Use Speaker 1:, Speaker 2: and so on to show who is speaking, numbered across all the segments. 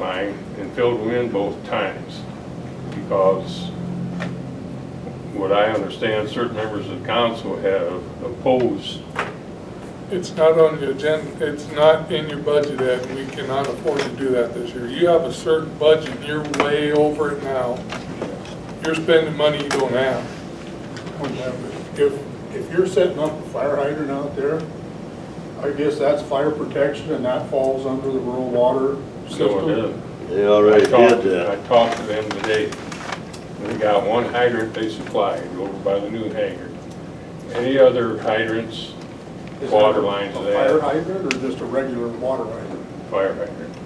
Speaker 1: time and filled them in both times. Because what I understand, certain members of council have opposed,
Speaker 2: It's not on the agenda, it's not in your budget, Ed, we cannot afford to do that this year. You have a certain budget, you're way over it now. You're spending money you don't have.
Speaker 3: If, if you're setting up a fire hydrant out there, I guess that's fire protection and that falls under the rural water
Speaker 1: so it
Speaker 3: system.
Speaker 1: is.
Speaker 4: They already
Speaker 1: I talked-
Speaker 4: did that.
Speaker 1: I talked to them today. They got one hydrant they supplied over by the new hangar. Any other hydrants,
Speaker 3: Is that
Speaker 1: water lines
Speaker 3: A
Speaker 1: of
Speaker 3: fire
Speaker 1: that,
Speaker 3: hydrant or just a regular water hydrant?
Speaker 1: fire hydrant?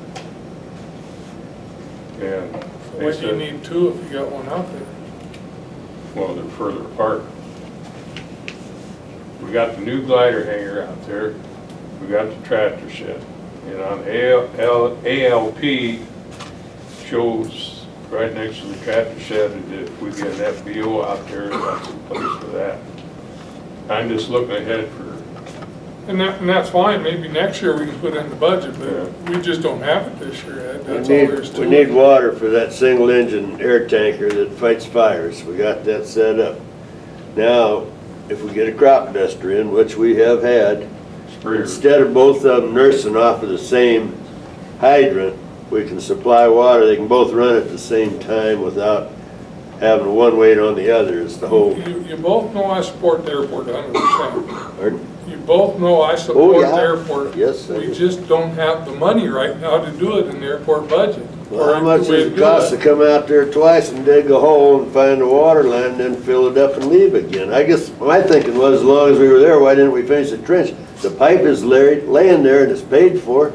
Speaker 1: And they
Speaker 2: Why do you
Speaker 1: said-
Speaker 2: need two if you got one out there?
Speaker 1: Well, they're further apart. We got the new glider hangar out there, we got the tractor shed. And on AL ALP shows right next to the tractor shed, and if we get an FBO out there, that's the place for that. I'm just looking ahead for,
Speaker 2: And that, and that's fine, maybe next year we can put it in the budget, but
Speaker 1: Yeah.
Speaker 2: we just don't have it this year, Ed,
Speaker 4: We
Speaker 2: that's all there is
Speaker 4: need,
Speaker 2: to
Speaker 4: we
Speaker 2: it.
Speaker 4: need water for that single engine air tanker that fights fires. We got that set up. Now, if we get a crop duster in, which we have had,
Speaker 1: Sprayer.
Speaker 4: instead of both of them nursing off of the same hydrant, we can supply water. They can both run at the same time without having one wait on the other is the whole,
Speaker 2: You, you both know I support the airport a hundred percent.
Speaker 4: pardon?
Speaker 2: You both know I support the
Speaker 4: Oh, yeah.
Speaker 2: airport.
Speaker 4: Yes, I
Speaker 2: We
Speaker 4: do.
Speaker 2: just don't have the money right now to do it in the airport budget.
Speaker 4: Well,
Speaker 2: or
Speaker 4: how much
Speaker 2: the way to
Speaker 4: does it
Speaker 2: do
Speaker 4: cost to come out there twice and dig a hole and find a water line, then fill it up and leave again? I guess, my thinking was, as long as we were there, why didn't we finish the trench? The pipe is laid, laying there and it's paid for.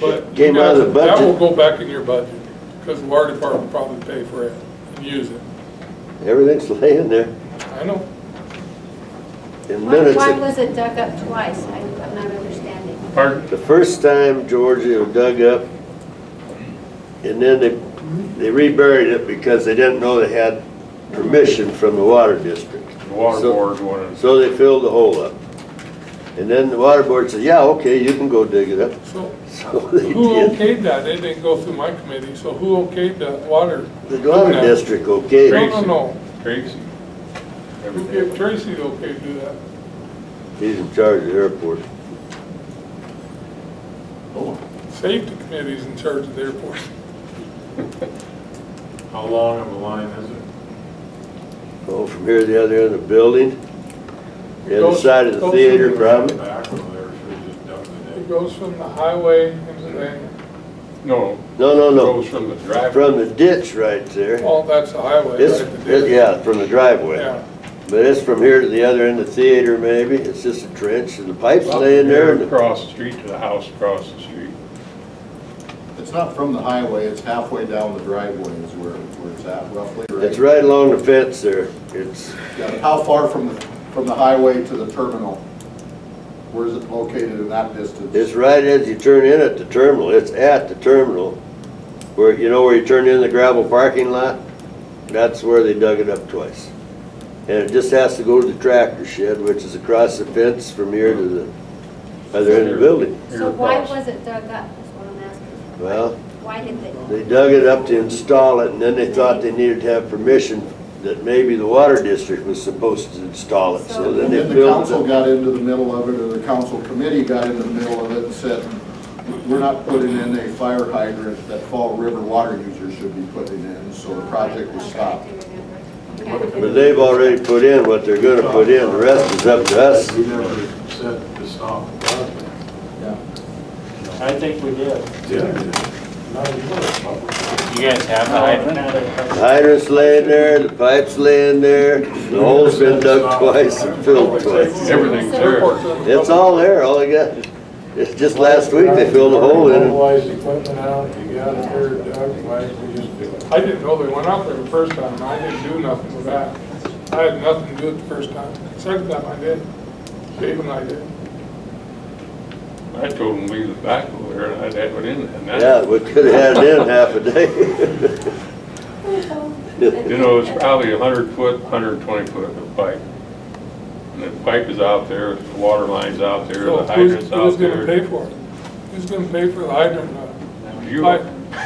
Speaker 2: But you
Speaker 4: Came out of the
Speaker 2: guys- That will go
Speaker 4: budget.
Speaker 2: back in your budget, because the water department will probably pay for it and use it.
Speaker 4: Everything's laying there.
Speaker 2: I know.
Speaker 4: In
Speaker 5: Why
Speaker 4: minutes,
Speaker 5: why
Speaker 4: it-
Speaker 5: was it dug up twice? I- I'm not understanding.
Speaker 1: Pardon?
Speaker 4: the first time Georgia was dug up, and then they, they reburied it because they didn't know they had permission from the water district.
Speaker 1: The water
Speaker 4: So-
Speaker 1: board wanted,
Speaker 4: So they filled the hole up. And then the water board said, yeah, okay, you can go dig it up.
Speaker 2: So
Speaker 4: So they
Speaker 2: who
Speaker 4: did.
Speaker 2: okayed that? It didn't go through my committee, so who okayed the water?
Speaker 4: The water
Speaker 2: Okay.
Speaker 4: district, okay,
Speaker 2: No, no, no.
Speaker 1: Tracy.
Speaker 2: Who
Speaker 1: everything.
Speaker 2: gave Tracy the okay to do that?
Speaker 4: he's in charge of the airport.
Speaker 2: Safety committee's in charge of the airport.
Speaker 6: How long of a line is it?
Speaker 4: Oh, from here to the other end of the building, the other
Speaker 2: Goes-
Speaker 4: side of the
Speaker 2: goes
Speaker 4: theater
Speaker 2: through-
Speaker 4: probably.
Speaker 6: Back over there, should have just dumped it
Speaker 2: It
Speaker 6: in.
Speaker 2: goes from the highway into the,
Speaker 1: No,
Speaker 4: No, no,
Speaker 1: goes
Speaker 4: no,
Speaker 1: from the driveway.
Speaker 4: from the ditch right there.
Speaker 2: well, that's the highway.
Speaker 4: It's,
Speaker 2: right, Oh, the
Speaker 4: it-
Speaker 2: ditch.
Speaker 4: yeah, from the driveway.
Speaker 2: Yeah.
Speaker 4: But it's from here to the other end of the theater maybe, it's just a trench and the pipe's laying there and the
Speaker 1: Across the street to the house across the street.
Speaker 7: It's not from the highway, it's halfway down the driveway is where, where it's at roughly, right?
Speaker 4: It's right along the fence there. It's,
Speaker 7: Yeah, How far from, the from the highway to the terminal? Where is it located in that distance?
Speaker 4: it's right as you turn in at the terminal. It's at the terminal. Where, you know where you turn in the gravel parking lot? That's where they dug it up twice. And it just has to go to the tractor shed, which is across the fence from here to the other end of the building.
Speaker 1: Here
Speaker 5: So why
Speaker 1: across.
Speaker 5: was it dug up, is what I'm asking.
Speaker 4: Well,
Speaker 5: Why did they?
Speaker 4: they dug it up to install it and then they thought they needed to have permission that maybe the water district was supposed to install it. So then
Speaker 7: And
Speaker 4: they
Speaker 7: then the
Speaker 4: built
Speaker 7: council
Speaker 4: it.
Speaker 7: got into the middle of it, or the council committee got into the middle of it and said, we're not putting in a fire hydrant that Fall River water users should be putting in, so the project was
Speaker 5: Okay,
Speaker 7: stopped.
Speaker 5: I do remember. Okay.
Speaker 4: But they've already put in what they're gonna put in. The rest is up to us.
Speaker 6: We never said to stop the project.
Speaker 8: I think we did.
Speaker 6: Yeah.
Speaker 8: You guys have the hydrant?
Speaker 4: Hydrant's laying there, the pipe's laying there, the hole's been dug twice and filled twice.
Speaker 1: Everything's there.
Speaker 2: Airport's in the
Speaker 4: It's all there, all I got. It's just last week they filled a hole in it.
Speaker 6: Mobilize the equipment out, you got it there, Doug, why did we just do it?
Speaker 2: I didn't know they went out there the first time, and I didn't do nothing with that. I had nothing to do it the first time. Second time I did, Dave and I did.
Speaker 1: I told him leave the back over there, and I'd have it in there.
Speaker 4: Yeah, we could've had it in half a day.
Speaker 1: You know, it's probably a hundred foot, hundred and twenty foot of pipe. And the pipe is out there, the water line's out there,
Speaker 2: So
Speaker 1: the
Speaker 2: who's,
Speaker 1: hydrant's
Speaker 2: who's
Speaker 1: out
Speaker 2: gonna pay
Speaker 1: there.
Speaker 2: for it? Who's gonna pay for the hydrant? uh,
Speaker 1: You,
Speaker 2: pipe?